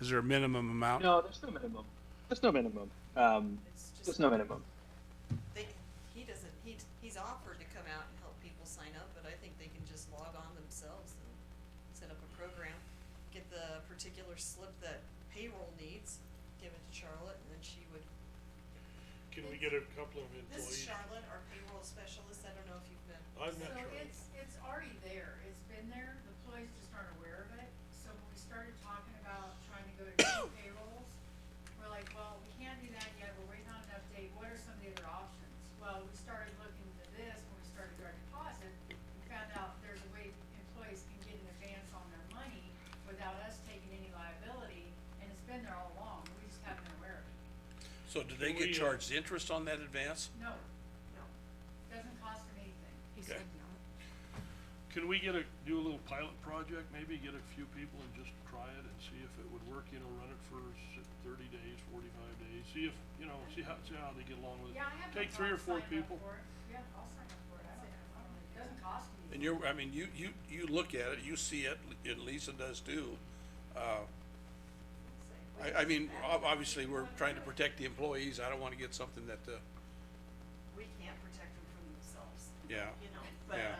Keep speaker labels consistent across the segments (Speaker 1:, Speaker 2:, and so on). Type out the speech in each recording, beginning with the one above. Speaker 1: Is there a minimum amount?
Speaker 2: No, there's no minimum. There's no minimum. Um,
Speaker 3: It's just-
Speaker 2: there's no minimum.
Speaker 3: They, he doesn't, he, he's offered to come out and help people sign up, but I think they can just log on themselves and set up a program, get the particular slip that payroll needs, give it to Charlotte, and then she would.
Speaker 4: Can we get a couple of
Speaker 3: This is
Speaker 4: employees?
Speaker 3: Charlotte, our payroll specialist, I don't know if you've been.
Speaker 4: I'm not
Speaker 5: So
Speaker 4: sure.
Speaker 5: it's, it's already there, it's been there, the employees just aren't aware of it, so when we started talking about trying to go to two payrolls, we're like, well, we can't do that yet, we're waiting on an update, what are some of the other options? Well, we started looking into this, when we started direct deposit, we found out there's a way employees can get an advance on their money without us taking any liability, and it's been there all along, we just haven't been aware of it.
Speaker 6: So do they
Speaker 4: Can
Speaker 6: get
Speaker 4: we, uh,
Speaker 6: charged interest on that advance?
Speaker 5: No, no, doesn't cost them anything.
Speaker 4: Okay. Can we get a, do a little pilot project, maybe get a few people and just try it and see if it would work, you know, run it for s- thirty days, forty-five days, see if, you know, see how, see how they get along with it.
Speaker 5: Yeah, I have no
Speaker 4: Take three or four
Speaker 5: problem signing up
Speaker 4: people.
Speaker 5: for it. Yeah, I'll sign up for it, I don't have a problem, it doesn't cost me.
Speaker 6: And you're, I mean, you, you, you look at it, you see it, and Lisa does too. Uh, I, I mean, ob- obviously, we're trying to protect the employees, I don't wanna get something that, uh,
Speaker 3: We can't protect them from themselves,
Speaker 6: yeah,
Speaker 3: you know,
Speaker 6: but, Yeah. um,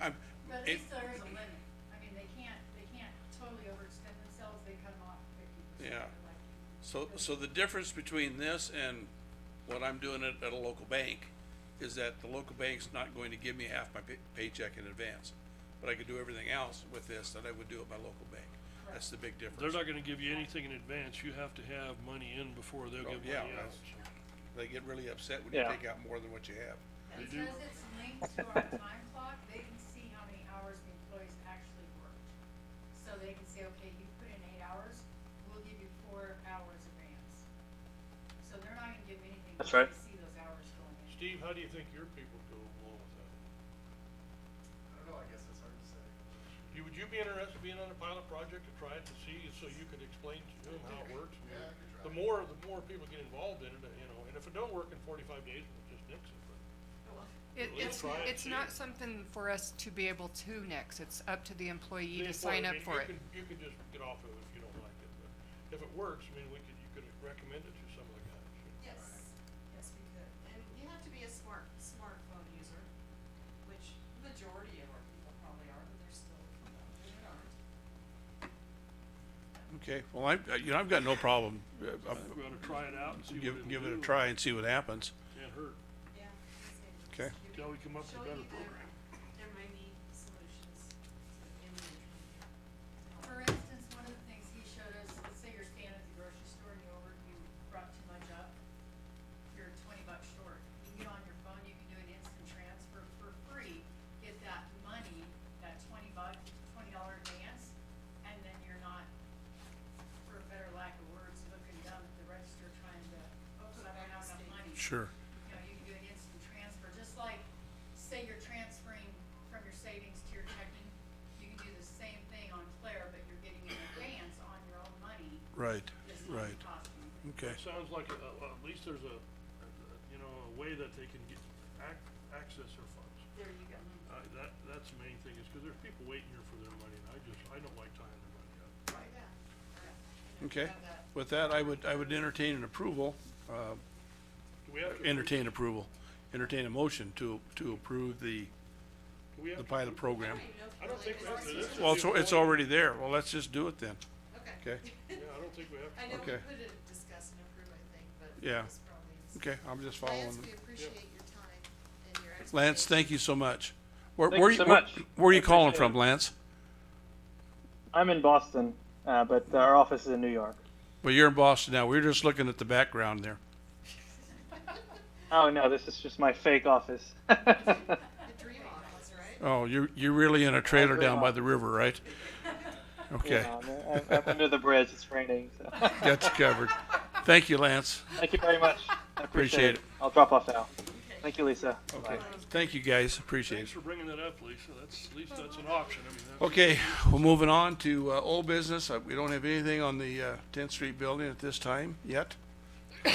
Speaker 6: I, I'm.
Speaker 5: But at
Speaker 6: it-
Speaker 5: least there is a limit, I mean, they can't, they can't totally overextend themselves, they cut them off fifty
Speaker 6: Yeah.
Speaker 5: percent.
Speaker 6: So, so the difference between this and what I'm doing at, at a local bank is that the local bank's not going to give me half my pay- paycheck in advance. But I could do everything else with this that I would do at my local bank. That's the big difference.
Speaker 4: They're not gonna give you anything in advance, you have to have money in before they'll
Speaker 6: Oh,
Speaker 4: give money
Speaker 6: yeah,
Speaker 4: out.
Speaker 6: that's- They get really upset when you
Speaker 2: Yeah.
Speaker 6: take out more than what you have.
Speaker 4: They do.
Speaker 5: Because it's linked to our time clock, they can see how many hours the employees actually worked. So they can say, okay, you put in eight hours, we'll give you four hours advance. So they're not gonna give anything,
Speaker 2: That's
Speaker 5: until
Speaker 2: right.
Speaker 5: they see those hours going in.
Speaker 4: Steve, how do you think your people go along with that?
Speaker 7: I don't know, I guess it's hard to say.
Speaker 4: You, would you be interested in being on a pilot project to try it to see, so you could explain to them how it works?
Speaker 7: Yeah, I could try.
Speaker 4: The more, the more people get involved in it, uh, you know, and if it don't work in forty-five days, we'll just nix it, but.
Speaker 8: It,
Speaker 4: At least
Speaker 8: it's,
Speaker 4: try it,
Speaker 8: it's
Speaker 4: see.
Speaker 8: not something for us to be able to nix, it's up to the employee to
Speaker 4: Therefore,
Speaker 8: sign
Speaker 4: I
Speaker 8: up
Speaker 4: mean,
Speaker 8: for
Speaker 4: you
Speaker 8: it.
Speaker 4: could- You could just get off of it if you don't like it, but if it works, I mean, we could, you could recommend it to some of the guys.
Speaker 3: Yes, yes, we could, and you have to be a smart, smartphone user, which majority of our people probably are, but there's still a couple that aren't.
Speaker 6: Okay, well, I, uh, you know, I've got no problem, uh,
Speaker 4: I think we ought to try it out and see what it'll
Speaker 6: give, give it a
Speaker 4: do.
Speaker 6: try and see what happens.
Speaker 4: Can't hurt.
Speaker 3: Yeah. I'd say just
Speaker 6: Okay.
Speaker 3: give it-
Speaker 4: Till we come up with
Speaker 3: show
Speaker 4: a better
Speaker 3: you the-
Speaker 4: program.
Speaker 3: There may be solutions to imminent.
Speaker 5: For instance, one of the things he showed us, let's say you're standing at the grocery store and you over, you brought too much up, you're twenty bucks short. You get on your phone, you can do an instant transfer for free, get that money, that twenty bucks, twenty dollar advance, and then you're not, for a better lack of words, looking dumb at the register trying to, oops, I don't have enough money
Speaker 6: Sure.
Speaker 5: you know, you can do an instant transfer, just like, say you're transferring from your savings to your checking, you can do the same thing on Claire, but you're getting an advance on your own money,
Speaker 6: Right,
Speaker 5: just not
Speaker 6: right,
Speaker 5: costing you.
Speaker 6: okay.
Speaker 4: It sounds like, uh, uh, at least there's a, a- a- you know, a way that they can get, ac- access their funds.
Speaker 3: There you go.
Speaker 4: Uh, that, that's the main thing, is because there's people waiting here for their money, and I just, I don't like tying their money up.
Speaker 3: Right.
Speaker 6: Okay, with that, I would, I would entertain an approval, uh,
Speaker 4: Do we have to?
Speaker 6: entertain approval, entertain a motion to, to approve the,
Speaker 4: do we have
Speaker 6: the
Speaker 4: to-
Speaker 6: pilot program.
Speaker 4: I don't think we have to, this is.
Speaker 6: Well,
Speaker 4: the
Speaker 6: so it's
Speaker 4: appoint-
Speaker 6: already there, well, let's just do it then,
Speaker 3: Okay.
Speaker 6: okay.
Speaker 4: Yeah, I don't think we have to.
Speaker 3: I know we
Speaker 6: Okay.
Speaker 3: put it in discuss and approve, I think, but.
Speaker 6: Yeah.
Speaker 3: this probably is-
Speaker 6: okay, I'm just
Speaker 3: Lance,
Speaker 6: following.
Speaker 3: we appreciate your time and your expertise.
Speaker 6: Lance, thank you so much. Where,
Speaker 2: Thank
Speaker 6: where,
Speaker 2: you
Speaker 6: you-
Speaker 2: so
Speaker 6: where
Speaker 2: much.
Speaker 6: where are
Speaker 2: I
Speaker 6: you calling
Speaker 2: appreciate
Speaker 6: from,
Speaker 2: it.
Speaker 6: Lance?
Speaker 2: I'm in Boston, uh, but our office is in New York.
Speaker 6: Well, you're in Boston now, we were just looking at the background there.
Speaker 2: Oh no, this is just my fake office.
Speaker 3: The dream office, right?
Speaker 6: Oh, you're, you're really in a trailer
Speaker 2: grew
Speaker 6: down by
Speaker 2: up.
Speaker 6: the river, right? Okay,
Speaker 2: Yeah, I'm, I'm under the bridge. It's raining. So.
Speaker 6: that's covered. Thank you, Lance.
Speaker 2: Thank you very much.
Speaker 6: Appreciate
Speaker 2: I appreciate it.
Speaker 6: it.
Speaker 2: I'll drop off now. Thank you, Lisa.
Speaker 6: Okay, thank you guys, appreciate
Speaker 4: Thanks
Speaker 6: it.
Speaker 4: for bringing that up, Lisa, that's, at least that's an option, I mean, that's.
Speaker 6: Okay, we're moving on to, uh, old business. Uh, We don't have anything on the, uh, Tenth Street building at this time yet. Uh,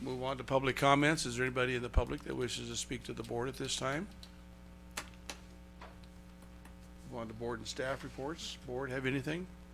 Speaker 6: Move on to public comments. Is there anybody in the public that wishes to speak to the board at this time? Move on to board and staff reports. Board, have anything?